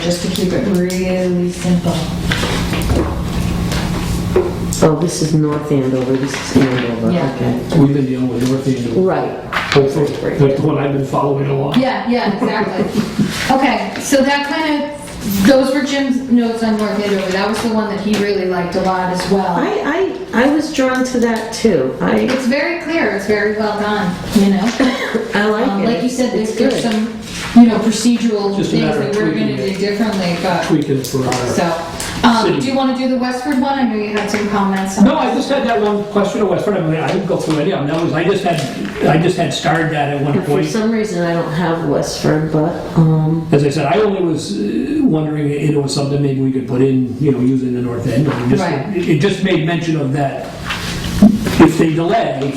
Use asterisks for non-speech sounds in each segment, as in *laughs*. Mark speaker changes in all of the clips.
Speaker 1: just to keep it really simple.
Speaker 2: Oh, this is North Andover, this is Andover,
Speaker 1: Yeah.
Speaker 2: okay.
Speaker 3: We've been dealing with North Andover,
Speaker 2: Right,
Speaker 3: hopefully, that's the one I've been following along.
Speaker 1: Yeah, yeah,
Speaker 2: *laughs*
Speaker 1: exactly. Okay, so that kind of, those were Jim's notes on North Andover. That was the one that he really liked a lot as well.
Speaker 2: I, I, I was drawn to that too, I,
Speaker 1: It's very clear, it's very well done, you know?
Speaker 2: I
Speaker 1: Um,
Speaker 2: like it.
Speaker 1: Like you said,
Speaker 2: It's
Speaker 1: there's there's
Speaker 2: good.
Speaker 1: some, you know, procedural
Speaker 3: Just a
Speaker 1: things
Speaker 3: matter
Speaker 1: that
Speaker 3: of
Speaker 1: we're gonna
Speaker 3: tweaking
Speaker 1: do
Speaker 3: it.
Speaker 1: differently, but,
Speaker 3: Tweaking for uh, our.
Speaker 1: so. Um,
Speaker 3: City.
Speaker 1: do you wanna do the Westford one? I know you had some comments on.
Speaker 3: No, I just had that one question, or whatever, I mean, I didn't go through any of them, that was, I just had, I just had starred that at one
Speaker 2: And For *laughs*
Speaker 3: point.
Speaker 2: some reason, I don't have Westford, but, um,
Speaker 3: As I said, I only was uh, wondering, you know, something maybe we could put in, you know, using the north end. or just-
Speaker 1: Right.
Speaker 3: It it just made mention of that, if they delay,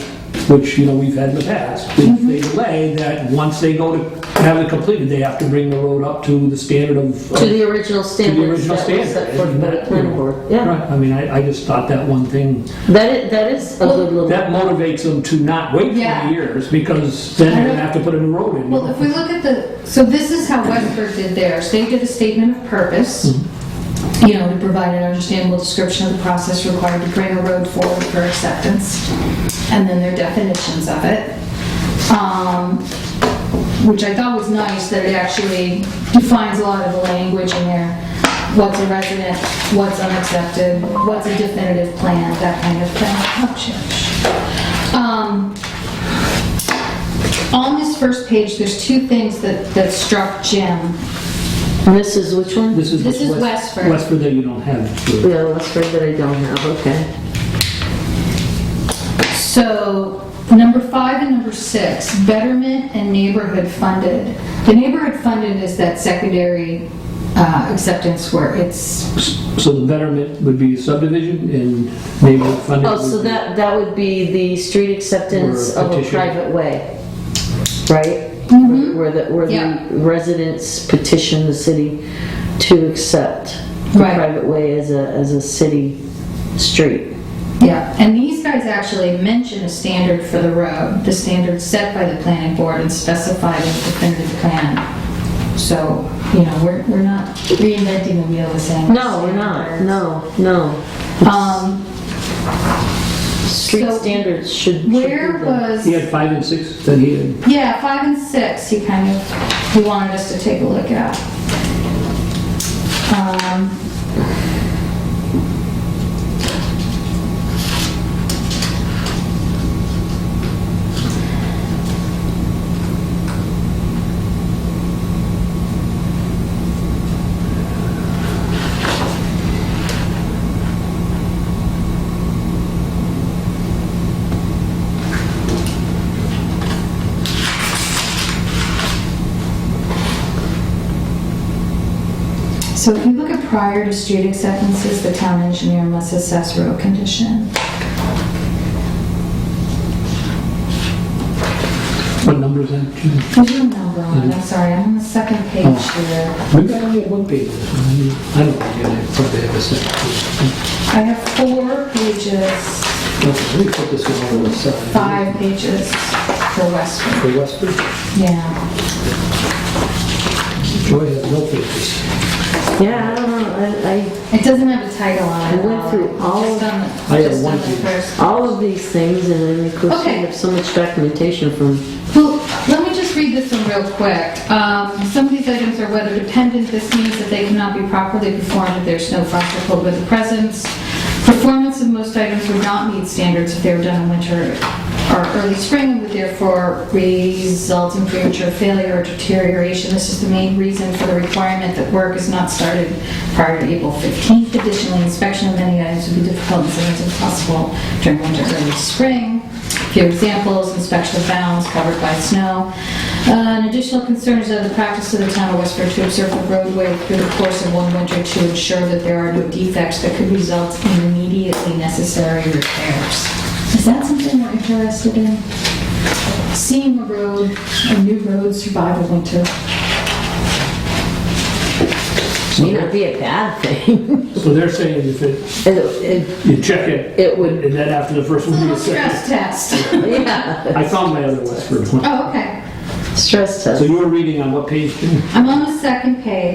Speaker 3: which, you know, we've had in the past, if they delay, that once they go to have it completed, they have to bring the road up to the standard of.
Speaker 2: to the original standards
Speaker 3: original
Speaker 2: that was
Speaker 3: standard,
Speaker 2: set forth by the
Speaker 3: isn't it?
Speaker 2: planning board,
Speaker 3: Right,
Speaker 2: yeah.
Speaker 3: I mean, I, I just thought that one thing,
Speaker 2: That is, that is a good little,
Speaker 3: that motivates them to not wait
Speaker 1: Yeah.
Speaker 3: 20 years, because then they're gonna have to put a new road in.
Speaker 1: Well, if we look at the, so this is how Westford did theirs. They did a statement of purpose, you know, to provide an understandable description of the process required to bring a road forward for acceptance, and then their definitions of it. Um, Which I thought was nice, that it actually defines a lot of the language in there. What's a resident, what's unaccepted, what's a definitive plan, that kind of thing. Oh, shush. Um, on this first page, there's two things that, that struck Jim.
Speaker 2: this is which one?
Speaker 3: This is.
Speaker 1: this is
Speaker 3: West-
Speaker 1: Westford.
Speaker 3: Westford that you don't have. the-
Speaker 2: Yeah, Westford that I don't have, okay.
Speaker 1: So, number five and number six, betterment and neighborhood funded. The neighborhood funded is that secondary uh, acceptance where it's,
Speaker 3: So the betterment would be subdivision and neighborhood funding.
Speaker 2: Oh, so
Speaker 3: would be-
Speaker 2: that, that would be the street acceptance
Speaker 3: Or
Speaker 2: of a
Speaker 3: petition.
Speaker 2: private way, right? Where the, where
Speaker 1: Mm-hmm. Yeah.
Speaker 2: the residents petition the city to accept the
Speaker 1: Right.
Speaker 2: private way as a, as a city street.
Speaker 1: yeah. And these guys actually mention a standard for the road, the standard set by the planning board and specified in the definitive plan. So, you know, we're, we're not reinventing the wheel the same.
Speaker 2: No, we're not, no, no.
Speaker 1: Um,
Speaker 2: Street
Speaker 1: so
Speaker 2: standards should. should be
Speaker 1: Where
Speaker 2: the-
Speaker 1: was?
Speaker 3: He had five and six that he had.
Speaker 1: Yeah, five and six, he kind of, he wanted us to take a look at. Um, So if you look at prior to street acceptances, the town engineer must assess road condition.
Speaker 3: What numbers then?
Speaker 1: There's no number
Speaker 3: Mm-hmm.
Speaker 1: on it, I'm sorry, I'm on the second page
Speaker 3: Oh.
Speaker 1: here.
Speaker 3: Maybe I only had one page. I don't think I probably have a second. page.
Speaker 1: I have four pages,
Speaker 3: Okay, Let me put this one on the side.
Speaker 1: five pages for Westford,
Speaker 3: For Westford,
Speaker 1: yeah.
Speaker 3: Joy has no pages.
Speaker 2: Yeah, I don't know, I, I,
Speaker 1: It doesn't have a title on it.
Speaker 2: I went through all
Speaker 1: Just
Speaker 2: of-
Speaker 1: on the-
Speaker 3: I have
Speaker 1: Just on
Speaker 3: one
Speaker 1: the
Speaker 3: page.
Speaker 1: first.
Speaker 2: all of these things, and then of course we
Speaker 1: Okay.
Speaker 2: have so much documentation from,
Speaker 1: Well, let me just read this one real quick. Um, Some of these items are weather dependent. This means that they cannot be properly performed if there's no frost or cold weather presence. Performance of most items would not meet standards if they were done in winter or early spring and would therefore result in premature failure or deterioration. This is the main reason for the requirement that work is not started prior to April 15th. Additionally, inspection of many items would be difficult and sometimes impossible during winter, early spring. Few examples, inspection of bounds covered by snow. Uh, An additional concern is that the practice of the town of Westford to observe the roadway through the course of one winter to ensure that there are no defects that could result in immediately necessary repairs. Is that something we're interested in? Seeing a road, a new road survive a winter?
Speaker 2: may not be a bad thing. *laughs*
Speaker 3: So they're saying if it,
Speaker 2: It- it-
Speaker 3: you check it,
Speaker 2: it would, *laughs*
Speaker 3: and then after the
Speaker 1: It's
Speaker 3: first
Speaker 1: a
Speaker 3: one, you
Speaker 1: little
Speaker 3: check it.
Speaker 1: stress test. *laughs*
Speaker 2: yeah.
Speaker 3: I found my other Westford one.
Speaker 1: Oh, okay.
Speaker 2: Stress
Speaker 3: So
Speaker 2: test.
Speaker 3: you were reading on what page? Jim?
Speaker 1: I'm on the second page.